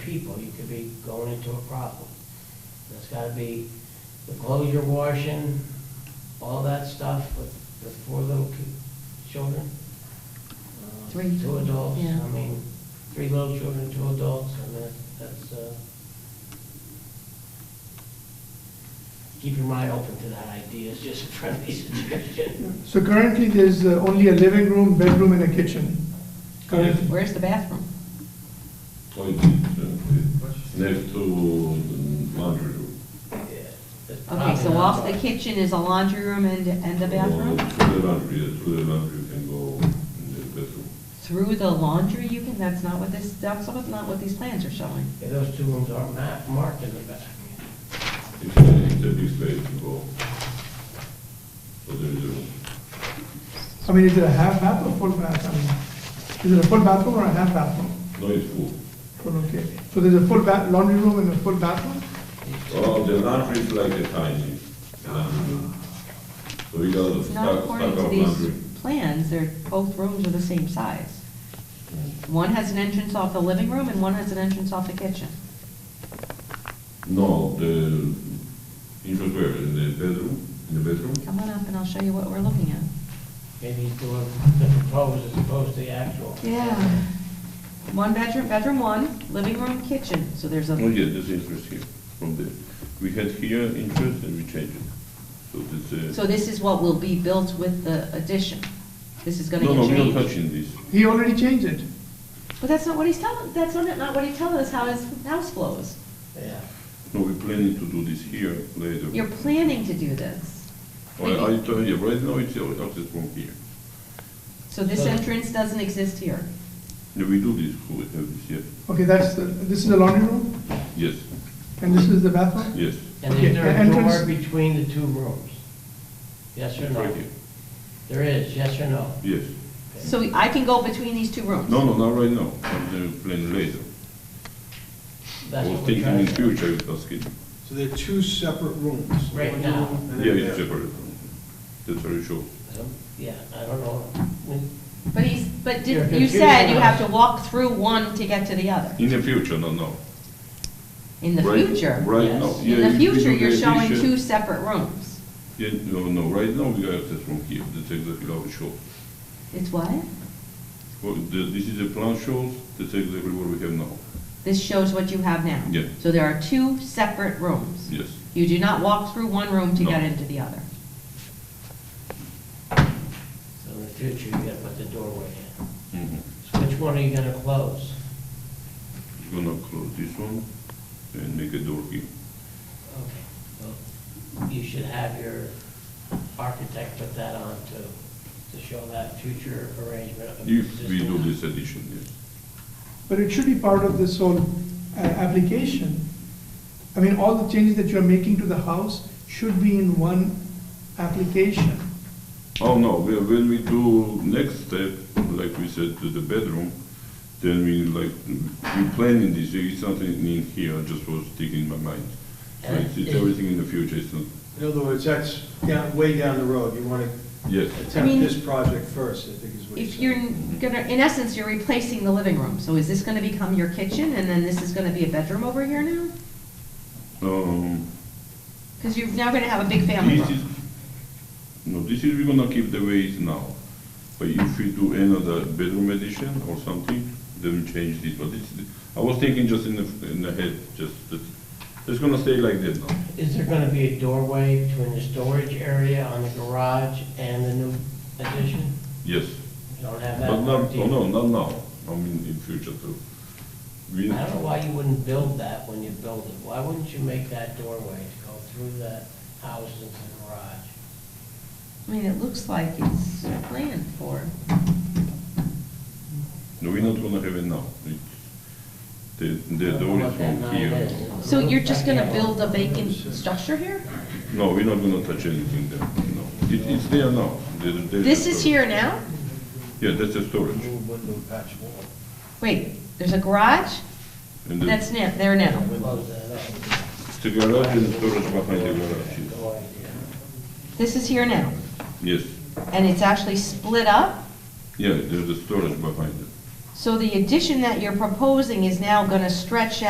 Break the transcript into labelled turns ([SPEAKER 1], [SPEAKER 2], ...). [SPEAKER 1] people, you could be going into a problem. There's gotta be the clothes you're washing, all that stuff with the four little ki- children. Uh,
[SPEAKER 2] Three.
[SPEAKER 1] Two adults,
[SPEAKER 2] Yeah.
[SPEAKER 1] I mean, three little children, two adults, and that, that's, uh, keep your mind open to that idea, it's just a friendly suggestion.
[SPEAKER 3] So currently, there's uh, only a living room, bedroom, and a kitchen. Currently,
[SPEAKER 2] Where's the bathroom?
[SPEAKER 4] next to the laundry room. Ah,
[SPEAKER 2] Okay, so off the kitchen is a laundry room and, and the bathroom?
[SPEAKER 4] Or Through the laundry, yeah, through the laundry you can go in the bathroom.
[SPEAKER 2] Through the laundry, you can, that's not what this, that's not what these plans are showing.
[SPEAKER 1] Yeah, those two rooms aren't ma- marked in the back.
[SPEAKER 4] It's a, it's a big space to go. So there is a,
[SPEAKER 3] I mean, is it a half bath or full bath? I mean, Is it a full bathroom or a half bathroom?
[SPEAKER 4] no, it's full.
[SPEAKER 3] Full, okay. So there's a full ba, laundry room and a full bathroom?
[SPEAKER 4] Oh, the laundry is like a tiny laundry room. So we got a
[SPEAKER 2] It's not
[SPEAKER 4] stack,
[SPEAKER 2] according
[SPEAKER 4] stack
[SPEAKER 2] to
[SPEAKER 4] of
[SPEAKER 2] these
[SPEAKER 4] laundry.
[SPEAKER 2] plans, they're, both rooms are the same size.
[SPEAKER 4] Hmm.
[SPEAKER 2] One has an entrance off the living room and one has an entrance off the kitchen.
[SPEAKER 4] No, the, in the, in the bedroom, in the bedroom.
[SPEAKER 2] Come on up and I'll show you what we're looking at.
[SPEAKER 1] Maybe he's doing the proposed as opposed to the actual.
[SPEAKER 2] One bedroom, bedroom one, living room, kitchen, so there's
[SPEAKER 4] Oh,
[SPEAKER 2] a,
[SPEAKER 4] yeah, there's interest here, from there. We had here interest and we changed it. So this, uh.
[SPEAKER 2] so this is what will be built with the addition. This is gonna
[SPEAKER 4] No,
[SPEAKER 2] get
[SPEAKER 4] no,
[SPEAKER 2] changed.
[SPEAKER 4] we're not touching this.
[SPEAKER 3] He already changed it.
[SPEAKER 2] But that's not what he's telling, that's not, not what he's telling us how his house flows.
[SPEAKER 1] Yeah.
[SPEAKER 4] No, we're planning to do this here later.
[SPEAKER 2] You're planning to do this.
[SPEAKER 4] Well, I tell you, right now it's our access from here.
[SPEAKER 2] So this entrance doesn't exist here.
[SPEAKER 4] No, we do this, we have this here.
[SPEAKER 3] Okay, that's, the- this is the laundry room,
[SPEAKER 4] Yes,
[SPEAKER 3] and this is the bathroom?
[SPEAKER 4] yes,
[SPEAKER 1] And
[SPEAKER 3] Okay,
[SPEAKER 1] is there a
[SPEAKER 3] and
[SPEAKER 1] door
[SPEAKER 3] entrance-
[SPEAKER 1] between the two rooms? Yes or
[SPEAKER 4] right
[SPEAKER 1] no?
[SPEAKER 4] here,
[SPEAKER 1] There is, yes or no?
[SPEAKER 4] yes.
[SPEAKER 2] So I can go between these two rooms?
[SPEAKER 4] No, no, not right now, I'm uh, planning later. I
[SPEAKER 1] That's
[SPEAKER 4] was
[SPEAKER 1] what we're
[SPEAKER 4] thinking
[SPEAKER 1] trying
[SPEAKER 4] in
[SPEAKER 1] to do.
[SPEAKER 4] future, if that's good.
[SPEAKER 5] So they're two separate rooms.
[SPEAKER 1] Right
[SPEAKER 5] One
[SPEAKER 1] now.
[SPEAKER 5] room and
[SPEAKER 4] Yeah,
[SPEAKER 5] then
[SPEAKER 4] it's
[SPEAKER 5] there.
[SPEAKER 4] separate. That's very sure.
[SPEAKER 1] Um, Yeah, I don't know.
[SPEAKER 2] But he's, but
[SPEAKER 1] You're
[SPEAKER 2] did- you said you
[SPEAKER 1] confusing
[SPEAKER 2] have
[SPEAKER 1] us.
[SPEAKER 2] to walk through one to get to the other.
[SPEAKER 4] In the future, no, no.
[SPEAKER 2] In the
[SPEAKER 4] Right-
[SPEAKER 2] future.
[SPEAKER 4] Right
[SPEAKER 1] yes.
[SPEAKER 4] now, yeah.
[SPEAKER 2] In the
[SPEAKER 4] if we do
[SPEAKER 2] future, you're showing
[SPEAKER 4] addition-
[SPEAKER 2] two separate rooms.
[SPEAKER 4] Yeah, no, no, right now we have this from here, that's exactly how it shows.
[SPEAKER 2] It's what?
[SPEAKER 4] Well, the, this is the plan shows, that's exactly what we have now,
[SPEAKER 2] This shows what you have now.
[SPEAKER 4] Yeah.
[SPEAKER 2] So there are two separate rooms.
[SPEAKER 4] yes.
[SPEAKER 2] You do not walk through one room to
[SPEAKER 4] No.
[SPEAKER 2] get into the other.
[SPEAKER 1] So in the future, you gotta put the doorway in.
[SPEAKER 4] Mhm.
[SPEAKER 1] So which one are you gonna close?
[SPEAKER 4] We're gonna close this one and make a door here.
[SPEAKER 1] Okay, well, you should have your architect put that on to, to show that future arrangement of the
[SPEAKER 4] If we
[SPEAKER 1] existing
[SPEAKER 4] do
[SPEAKER 1] house.
[SPEAKER 4] this addition, yes.
[SPEAKER 3] But it should be part of this whole uh, application. I mean, all the changes that you're making to the house should be in one application.
[SPEAKER 4] Oh, no, we- when we do next step, like we said, to the bedroom, then we like, we planning this, it's something in here, I just was sticking in my mind.
[SPEAKER 1] And
[SPEAKER 4] Like, it's
[SPEAKER 1] if-
[SPEAKER 4] everything in the future, it's not,
[SPEAKER 5] In other words, that's down, way down the road. You want
[SPEAKER 4] yes,
[SPEAKER 5] to
[SPEAKER 2] I mean,
[SPEAKER 5] attempt this project first, I think is what you're
[SPEAKER 2] If you're
[SPEAKER 5] saying.
[SPEAKER 2] n- gonna, in essence, you're replacing the living room, so is this gonna become your kitchen, and then this is gonna be a bedroom over here now?
[SPEAKER 4] um.
[SPEAKER 2] Because you're now gonna have a big family
[SPEAKER 4] This is,
[SPEAKER 2] room.
[SPEAKER 4] no, this is, we're gonna keep the way it's now. But if we do another bedroom addition or something, then we change this, but it's, I was thinking just in the, in the head, just, that it's gonna stay like that now.
[SPEAKER 1] Is there gonna be a doorway between the storage area on the garage and the new addition?
[SPEAKER 4] Yes,
[SPEAKER 1] You don't have that
[SPEAKER 4] but not, oh,
[SPEAKER 1] marked either.
[SPEAKER 4] no, not now, I mean, in future too. We,
[SPEAKER 1] I don't know why you wouldn't build that when you build it. Why wouldn't you make that doorway to go through the house into the garage?
[SPEAKER 2] I mean, it looks like it's planned for.
[SPEAKER 4] no, we're not gonna have it now. It's- The, the
[SPEAKER 1] I don't know
[SPEAKER 4] door
[SPEAKER 1] what
[SPEAKER 4] is
[SPEAKER 1] that
[SPEAKER 4] from
[SPEAKER 1] nine
[SPEAKER 4] here.
[SPEAKER 1] is.
[SPEAKER 2] So you're just gonna
[SPEAKER 1] Yeah.
[SPEAKER 2] build a vacant structure here?
[SPEAKER 4] No, we're not gonna touch anything there, no. It, it's there now. There- there's a
[SPEAKER 2] This is
[SPEAKER 4] storage.
[SPEAKER 2] here now?
[SPEAKER 4] Yeah, that's a storage.
[SPEAKER 5] Little window patch wall.
[SPEAKER 2] Wait, there's a garage?
[SPEAKER 4] And the-
[SPEAKER 2] That's now, there now.
[SPEAKER 1] Close that up.
[SPEAKER 4] The garage and the storage behind the garage, yes.
[SPEAKER 1] No idea.
[SPEAKER 2] This is here now,
[SPEAKER 4] yes.
[SPEAKER 2] and it's actually split up?
[SPEAKER 4] Yeah, there's the storage behind it.
[SPEAKER 2] So the addition that you're proposing is now gonna stretch